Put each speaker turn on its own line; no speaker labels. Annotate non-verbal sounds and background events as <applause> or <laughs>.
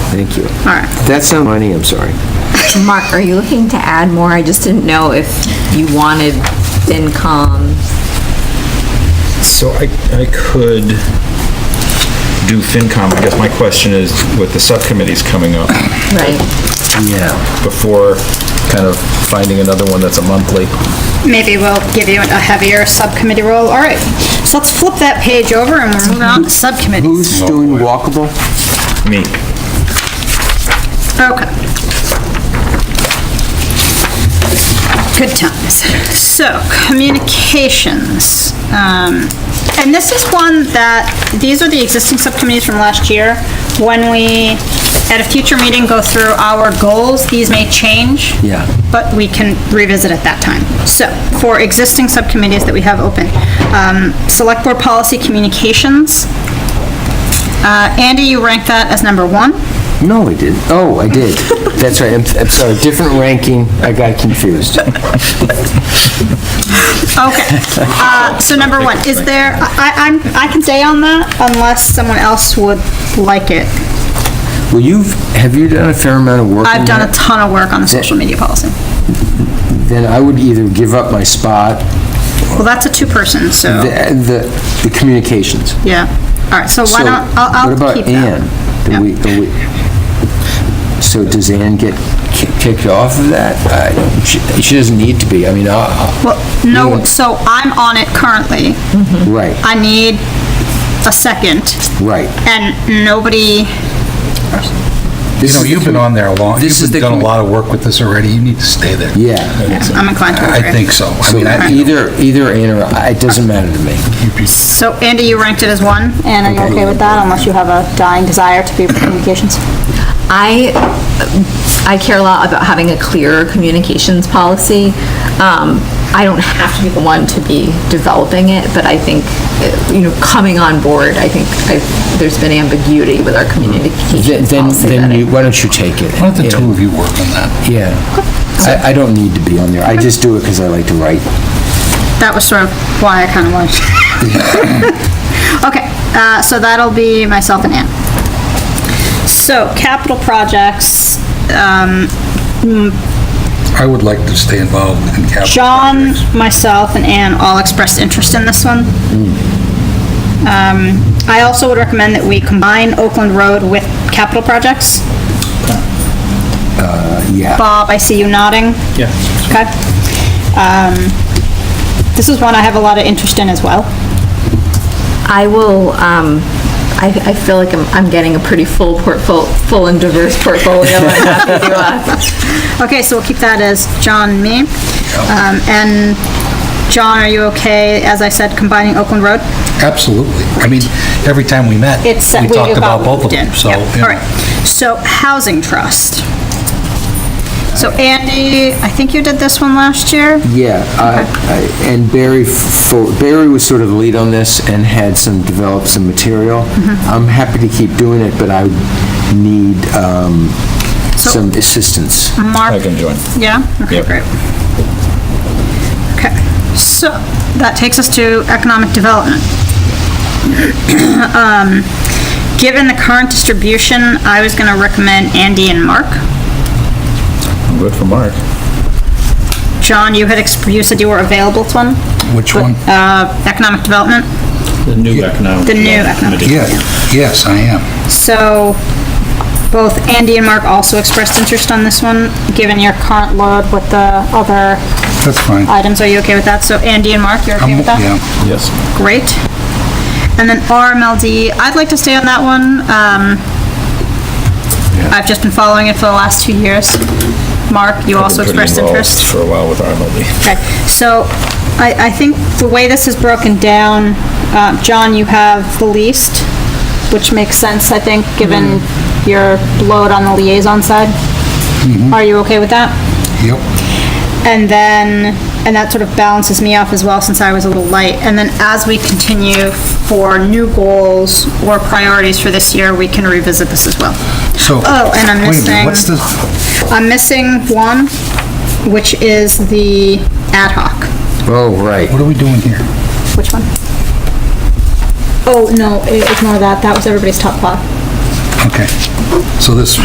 Thank you.
All right.
That sound funny, I'm sorry.
Mark, are you looking to add more? I just didn't know if you wanted FinCom.
So I, I could do FinCom. I guess my question is with the subcommittees coming up
Right.
Yeah.
before kind of finding another one that's a monthly.
Maybe we'll give you a heavier subcommittee role. All right, so let's flip that page over and we're moving on to subcommittees.
Who's doing walkable?
Me.
Okay. Good times. So, communications. Um, And this is one that, these are the existing subcommittees from last year. When we, at a future meeting, go through our goals, these may change.
Yeah.
But we can revisit at that time. So, for existing subcommittees that we have open, um, Select Board Policy Communications. Uh, Andy, you rank that as number one.
No, I didn't. Oh, I did. That's right. I'm, I'm sorry. Different ranking. I got confused.
Okay, uh, so number one, is there, I, I'm, I can stay on that unless someone else would like it.
Well, you've, have you done a fair amount of work on
I've done a
that?
ton of work on the social media policy.
Then I would either give up my spot,
Well, that's a two-person,
the,
so,
the, the communications.
yeah. All right, so why
So,
don't, I'll, I'll keep
What about Ann?
that.
Do we, do we, so does Ann get ki- kicked off of that? I- She she doesn't need to be, I mean, I- I-
Well, no, so I'm on it currently.
right,
I need a second,
right.
and nobody,
This
You know,
is the
you've been
commu-
on there a long,
This is
you've
the
done a
commu-
lot of work with this already, you need to stay there.
Yeah.
I'm inclined to
I
agree.
I think so. I
So
mean, I-
either, either Ann or, I- it doesn't matter to me.
So Andy, you ranked it as one, and are you okay with that unless you have a dying desire to be with communications?
I, I care a lot about having a clear communications policy. Um, I don't have to be the one to be developing it, but I think, uh, you know, coming on board, I think I've, there's been ambiguity with our
Then,
communications
then
policy.
then
that
you, why don't you take it?
Why don't the two of you work on that?
Yeah. I, I don't need to be on there, I just do it because I like to write.
That was sort of why I kind of wanted. <laughs> Okay, uh, so that'll be myself and Ann. So, capital projects, um,
I would like to stay involved in capital.
John,
projects.
myself, and Ann all expressed interest in this one. Um, I also would recommend that we combine Oakland Road with capital projects.
yeah.
Bob, I see you nodding.
Yeah.
Okay. Um, This is one I have a lot of interest in as well.
I will, um, I, I feel like I'm, I'm getting a pretty full portfolio, full and diverse portfolio. I'm
<laughs>
happy to, uh,
Okay, so we'll keep that as John, me. Um, And John, are you okay, as I said, combining Oakland Road?
Absolutely. I mean, every time we met, we
It's, uh, we
talked about
got
both of
moved in.
them, so.
Yep,
you know.
All right, so Housing Trust. So Andy, I think you did this one last year?
Yeah, I- I- and Barry, for- Barry was sort of the lead on this and had some, developed some material.
Mm-hmm.
I'm happy to keep doing it, but I need um,
So-
some assistance.
Hmm.
Mark?
I can join.
Yeah? Okay,
Yep.
great. Okay, so that takes us to economic development. <coughs> Um, Given the current distribution, I was gonna recommend Andy and Mark.
Good for Mark.
John, you had, exp- you said you were available to one,
Which one?
uh, economic development,
The new economic.
the new economic.
Yeah, yes, I am.
So, both Andy and Mark also expressed interest on this one, given your current load with the other
That's fine.
items. Are you okay with that? So Andy and Mark, you're okay
I'm-
with that?
Yeah,
Yes.
Great. And then RMLD, I'd like to stay on that one. Um, I've just been following it for the last two years. Mark, you also
Pretty
expressed
involved
interest.
For a while with RMLD.
Okay, so I, I think the way this is broken down, uh, John, you have the least, which makes sense, I think, given your load on the liaison side. Are you okay with that?
yep.
And then, and that sort of balances me off as well, since I was a little light. And then as we continue for new goals or priorities for this year, we can revisit this as well.
So.
Oh, and I'm
Wait a
missing-
minute, what's the,
I'm missing one, which is the ad hoc.
Oh, right.
what are we doing here?
Which one? Oh, no, i- ignore that. That was everybody's top five.
Okay. So this,